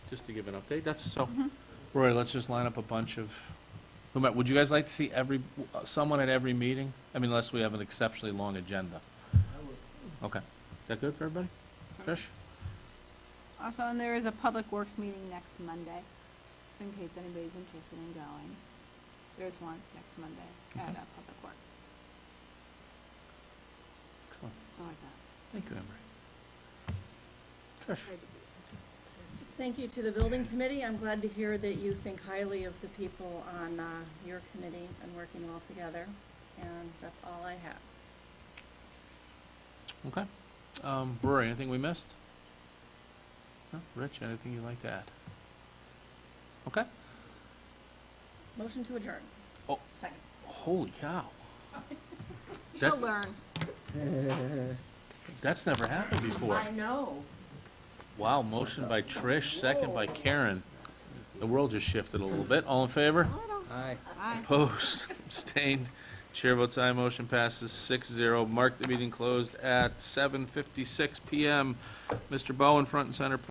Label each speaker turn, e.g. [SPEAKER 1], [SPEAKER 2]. [SPEAKER 1] just to give an update, that's, so, Rory, let's just line up a bunch of, no matter- would you guys like to see every, someone at every meeting? I mean, unless we have an exceptionally long agenda. Okay, is that good for everybody? Trish?
[SPEAKER 2] Also, and there is a Public Works meeting next Monday, in case anybody's interested in going. There's one next Monday at
[SPEAKER 1] Okay.
[SPEAKER 2] uh, Public Works,
[SPEAKER 1] Excellent,
[SPEAKER 2] so like that.
[SPEAKER 1] thank you, Emery. Trish?
[SPEAKER 3] Just thank you to the building committee. I'm glad to hear that you think highly of the people on uh, your committee and working well together. And that's all I have.
[SPEAKER 1] Okay. Um, Rory, anything we missed? No? Rich, anything you'd like to add? Okay,
[SPEAKER 3] Motion to adjourn.
[SPEAKER 1] Oh.
[SPEAKER 3] Second.
[SPEAKER 1] holy cow.
[SPEAKER 2] She'll
[SPEAKER 1] That's-
[SPEAKER 2] learn.
[SPEAKER 1] That's never happened before.
[SPEAKER 3] know.
[SPEAKER 1] Wow, motion by Trish, second by Karen. The world just shifted a little bit. All in favor?
[SPEAKER 4] Aye.
[SPEAKER 2] Bye.
[SPEAKER 1] Opposed, abstained. Chair votes aye, motion passes six zero. Mark the meeting closed at seven fifty-six PM. Mr. Bowen, front and center,